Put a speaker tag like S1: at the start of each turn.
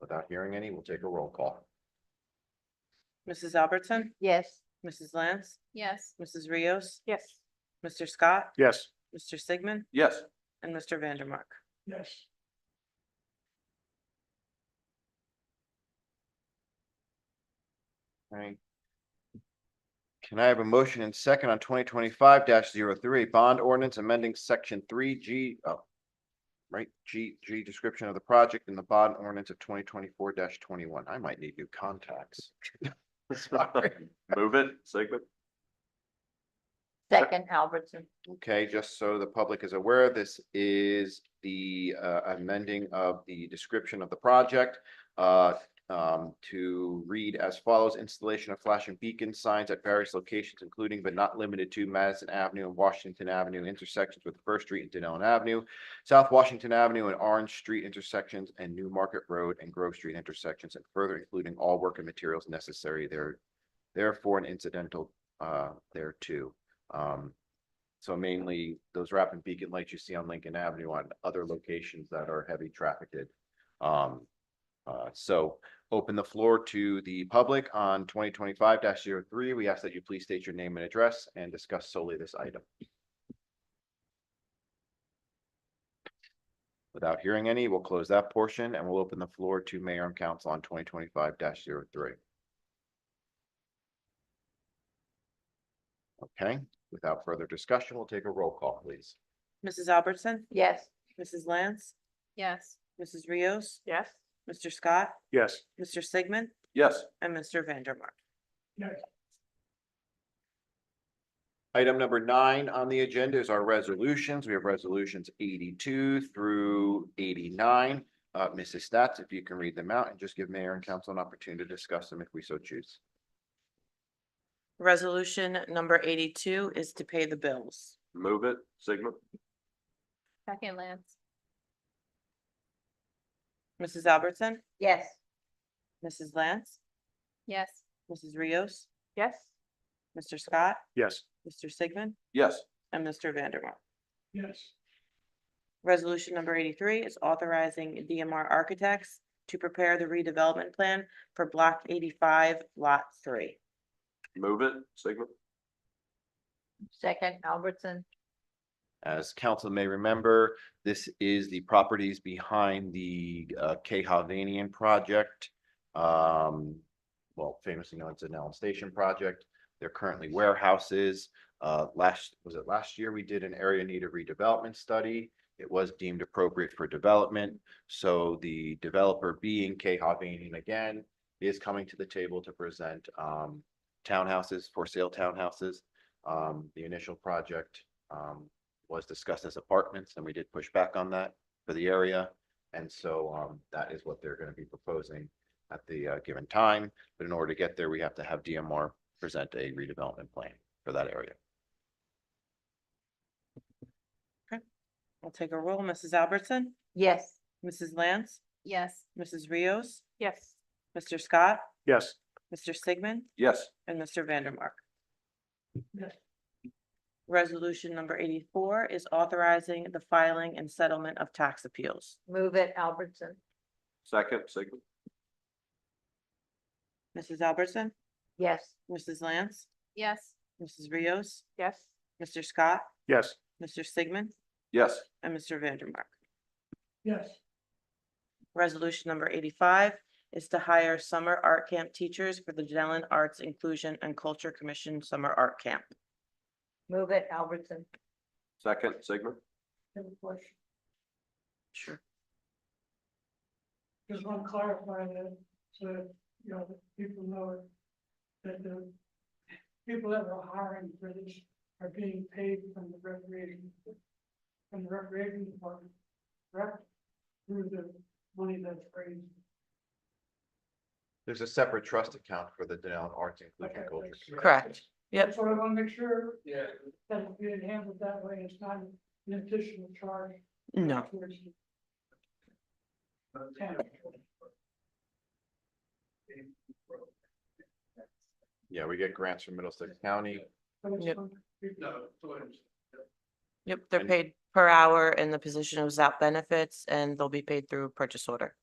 S1: Without hearing any, we'll take a roll call.
S2: Mrs. Albertson,
S3: Yes.
S2: Mrs. Lance,
S4: Yes.
S2: Mrs. Rios,
S3: Yes.
S2: Mr. Scott,
S5: Yes.
S2: Mr. Sigmund,
S5: Yes.
S2: and Mr. Vandermark.
S5: Yes.
S1: Right. Can I have a motion and second on twenty twenty-five 3 bond ordinance amending section three G, oh. Right, G, G description of the project in the bond ordinance of twenty twenty-four twenty-one. I might need new contacts. Sorry.
S5: Move it, Sigmund.
S3: Second Albertson.
S1: Okay, just so the public is aware, this is the uh, amending of the description of the project uh, um, to read as follows, installation of flashing beacon signs at various locations, including but not limited to Madison Avenue and Washington Avenue intersections with First Street and Denellen Avenue, South Washington Avenue and Orange Street intersections, and New Market Road and Grove Street intersections, and further including all work and materials necessary there, therefore an incidental uh, thereto. Um, so mainly those rapid beacon lights you see on Lincoln Avenue on other locations that are heavy trafficked. Um, uh, so open the floor to the public on twenty twenty-five 3 We ask that you please state your name and address and discuss solely this item. Without hearing any, we'll close that portion and we'll open the floor to mayor and council on twenty twenty-five 3 Okay, Without further discussion, we'll take a roll call, please.
S2: Mrs. Albertson,
S3: Yes.
S2: Mrs. Lance,
S4: Yes.
S2: Mrs. Rios,
S3: Yes.
S2: Mr. Scott,
S5: Yes.
S2: Mr. Sigmund,
S5: Yes.
S2: and Mr. Vandermark.
S1: Item number nine on the agenda is our resolutions. We have resolutions eighty-two through eighty-nine. Uh, Mrs. Stats, if you can read them out and just give mayor and council an opportunity to discuss them if we so choose.
S2: Resolution number eighty-two is to pay the bills.
S5: Move it, Sigmund.
S4: Second Lance.
S2: Mrs. Albertson,
S3: Yes.
S2: Mrs. Lance,
S4: Yes.
S2: Mrs. Rios,
S3: Yes.
S2: Mr. Scott,
S5: Yes.
S2: Mr. Sigmund,
S5: Yes.
S2: and Mr. Vandermark.
S5: Yes.
S2: Resolution number eighty-three is authorizing DMR Architects to prepare the redevelopment plan for block eighty-five, lot three.
S5: Move it, Sigmund.
S3: Second Albertson.
S1: As council may remember, this is the properties behind the uh K Hovnanian project. Um, well, famously known as the Nellen Station project. They're currently warehouses. Uh, last, was it last year? We did an area need a redevelopment study. It was deemed appropriate for development. So the developer being K Hovnanian again is coming to the table to present um townhouses, for sale townhouses. Um, the initial project um was discussed as apartments, and we did push back on that for the area. And so um, that is what they're gonna be proposing at the uh, given time, but in order to get there, we have to have DMR present a redevelopment plan for that area.
S2: I'll take a roll. Mrs. Albertson,
S3: Yes.
S2: Mrs. Lance,
S4: Yes.
S2: Mrs. Rios,
S3: Yes.
S2: Mr. Scott,
S5: Yes.
S2: Mr. Sigmund,
S5: Yes.
S2: and Mr. Vandermark. Resolution number eighty-four is authorizing the filing and settlement of tax appeals.
S3: Move it Albertson.
S5: Second, Sigmund.
S2: Mrs. Albertson,
S3: Yes.
S2: Mrs. Lance,
S4: Yes.
S2: Mrs. Rios,
S3: Yes.
S2: Mr. Scott,
S5: Yes.
S2: Mr. Sigmund,
S5: Yes.
S2: and Mr. Vandermark.
S5: Yes.
S2: Resolution number eighty-five is to hire summer art camp teachers for the Dellen Arts Inclusion and Culture Commission Summer Art Camp.
S3: Move it Albertson.
S5: Second, Sigmund.
S2: Sure.
S6: Just want to clarify that, so, that, you know, that people know it, that the people that are hiring for this are being paid from the recreation, from the recreation department, correct? Through the money that's raised.
S1: There's a separate trust account for the Denellen Arts Inclusion
S6: Okay,
S1: and Culture.
S6: that's-
S1: Committee.
S2: Correct. Yep.
S6: That's what I want to make sure,
S5: Yeah.
S6: that if you handle it that way, it's not an additional charge.
S2: No.
S6: towards the town.
S1: Yeah, we get grants from Middlesex County.
S6: So it's
S2: Yep.
S6: from-
S2: Yep, they're
S1: And-
S2: paid per hour and the position is out benefits and they'll be paid through purchase order.